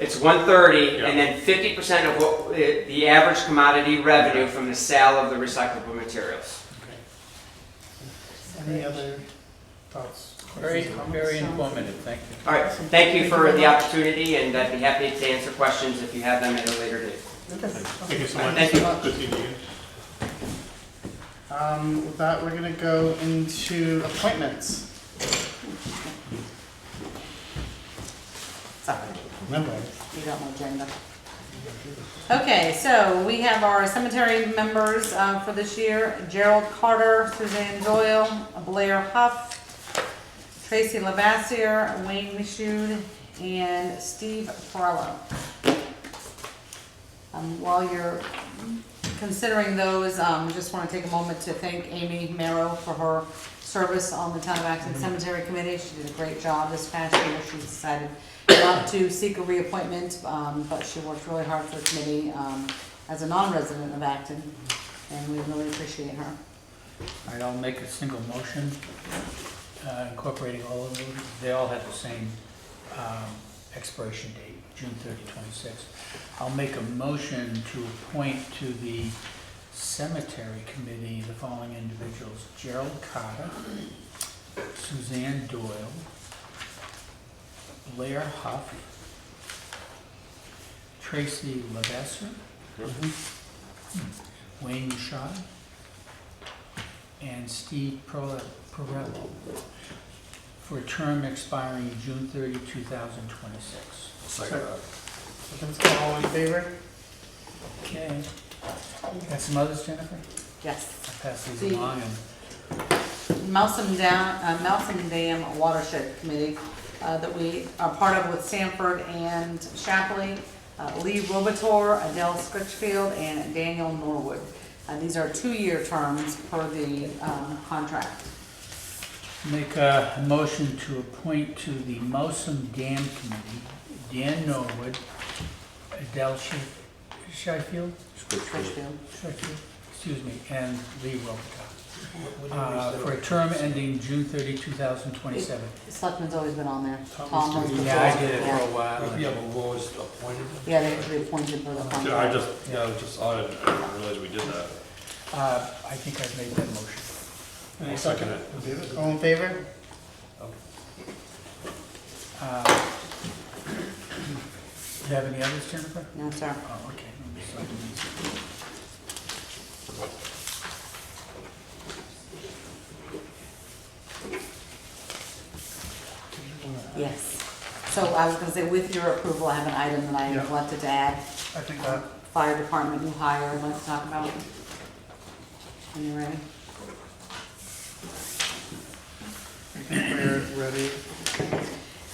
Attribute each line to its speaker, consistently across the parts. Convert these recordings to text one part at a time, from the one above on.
Speaker 1: It's one thirty,
Speaker 2: Yeah.
Speaker 1: and then fifty percent of what, the the average commodity revenue
Speaker 2: Okay.
Speaker 1: from the sale of the recyclable materials.
Speaker 3: Any other thoughts?
Speaker 4: Very,
Speaker 3: questions, comments?
Speaker 4: very informative, thank you.
Speaker 1: All right, thank you for the opportunity, and I'd be happy to answer questions if you have them at a later date.
Speaker 2: Thank you so much.
Speaker 1: Thank you.
Speaker 2: Good seeing you.
Speaker 3: Um, with that, we're gonna go into appointments.
Speaker 5: Sorry,
Speaker 3: Remember,
Speaker 5: you got my agenda. Okay, so we have our cemetery members uh, for this year, Gerald Carter, Suzanne Doyle, Blair Huff, Tracy Lavassier, Wayne Michoud, and Steve Farello. Um, While you're considering those, um, just want to take a moment to thank Amy Marrow for her service on the Town of Acton Cemetery Committee. She did a great job this past year. She decided not to seek a reappointment, um, but she worked really hard for the committee, um, as a non-resident of Acton, and we really appreciate her.
Speaker 4: All right, I'll make a single motion uh, incorporating all of them. They all have the same um, expiration date, June 30, 26. I'll make a motion to appoint to the cemetery committee the following individuals. Gerald Carter, Suzanne Doyle, Blair Huff, Tracy Levesque, Wayne Shaw, and Steve Perle- Perello for a term expiring June 30, 2026.
Speaker 3: Second. Seconds, all in favor?
Speaker 4: Okay. Got some others, Jennifer?
Speaker 5: Yes.
Speaker 4: I'll pass these
Speaker 5: See.
Speaker 4: along. and-
Speaker 5: Melson Dam, uh, Melson Dam Watershed Committee, uh, that we are part of with Sanford and Shapley, uh, Lee Robitor, Adele Scritchfield, and Daniel Norwood. Uh, these are two-year terms per the, um, contract.
Speaker 4: Make a motion to appoint to the Mosum Dam Committee Dan Norwood, Adele Shef- Sheffield,
Speaker 5: Scritchfield.
Speaker 4: Sheffield, excuse me, and Lee Robichaud, uh, for a term ending June 30, 2027.
Speaker 5: Selectman's always been on there.
Speaker 3: Tom
Speaker 5: Tom
Speaker 3: used to
Speaker 5: was
Speaker 3: be-
Speaker 4: Yeah, I did it for
Speaker 5: before.
Speaker 4: a while.
Speaker 6: If you have a lowest appointed,
Speaker 5: Yeah, they have to be appointed for the
Speaker 2: Yeah, I
Speaker 5: contract.
Speaker 2: just, yeah, I was just audited, I didn't realize we did that.
Speaker 4: Uh, I think I've made that motion.
Speaker 3: Any
Speaker 2: I'll
Speaker 3: second?
Speaker 2: second it.
Speaker 3: All in favor?
Speaker 4: Uh, Do you have any others, Jennifer?
Speaker 5: No, sir.
Speaker 4: Oh, okay. Let me slide these.
Speaker 5: Yes. So I was gonna say, with your approval, I have an item that I
Speaker 3: Yeah.
Speaker 5: neglected to add.
Speaker 3: I think that,
Speaker 5: Fire department new hire, I'd like to talk about. Are you ready?
Speaker 3: I think we're ready.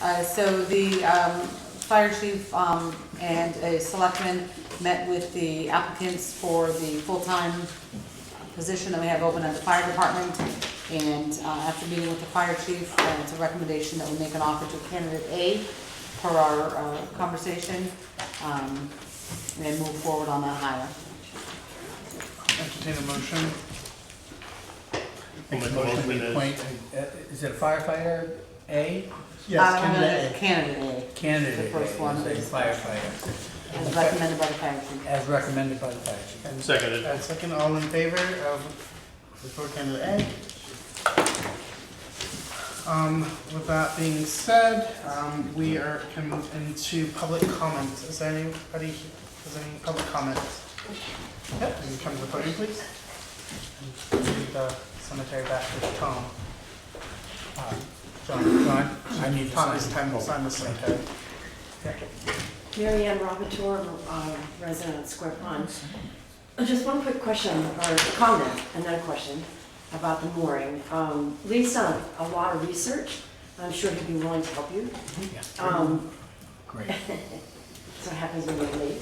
Speaker 5: Uh, So the um, fire chief um, and a selectman met with the applicants for the full-time position that we have open at the fire department. And uh, after meeting with the fire chief, uh, it's a recommendation that we make an offer to candidate A per our uh, conversation um, and move forward on that hire.
Speaker 3: Entertain a motion.
Speaker 2: I'll make
Speaker 4: Make a
Speaker 2: a
Speaker 4: motion
Speaker 2: motion
Speaker 4: we
Speaker 2: that-
Speaker 4: appoint, uh, is it a firefighter A?
Speaker 3: Yes,
Speaker 5: Uh,
Speaker 3: candidate
Speaker 5: Candidate
Speaker 4: Candidate
Speaker 5: The first
Speaker 4: A,
Speaker 5: one
Speaker 4: is a
Speaker 5: is-
Speaker 4: firefighter,
Speaker 5: A, as recommended by the fire chief.
Speaker 4: as recommended by the fire chief.
Speaker 3: A. And
Speaker 2: Seconded.
Speaker 3: Uh, second, all in favor of report candidate A. Um, with that being said, um, we are coming into public comment. Is there anybody, is there any public comment? Yep, can you come to the podium, please? And leave the cemetery back with Tom.
Speaker 4: Uh, John, John, I need to
Speaker 3: Tom is
Speaker 4: sign.
Speaker 3: time to sign the cemetery.
Speaker 7: Mary Ann Robitor, uh, resident of Square Pond. Just one quick question, or comment, and then a question about the mooring. Um, Lee's done a lot of research. I'm sure he'd be willing to help you.
Speaker 4: Yeah,
Speaker 7: Um,
Speaker 4: Great.
Speaker 7: So it happens when you're late.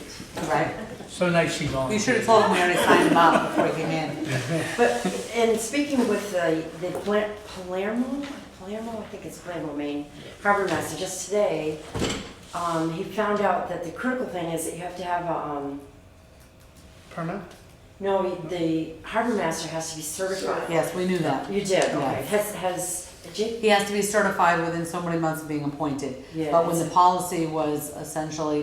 Speaker 5: Right?
Speaker 4: So nice she volunteered.
Speaker 5: You should have told him we already signed him up before he came in.
Speaker 7: But in speaking with the, the Pla- Palermo, Palermo, I think it's Palermo, Maine, harbor master, just today, um, he found out that the critical thing is that you have to have a, um,
Speaker 3: Permit?
Speaker 7: no, the harbor master has to be certified.
Speaker 5: Yes, we knew that.
Speaker 7: You did, okay.
Speaker 5: Yes.
Speaker 7: Has, has, Jake,
Speaker 5: He has to be certified within so many months of being appointed.
Speaker 7: Yeah.
Speaker 5: But when the policy was essentially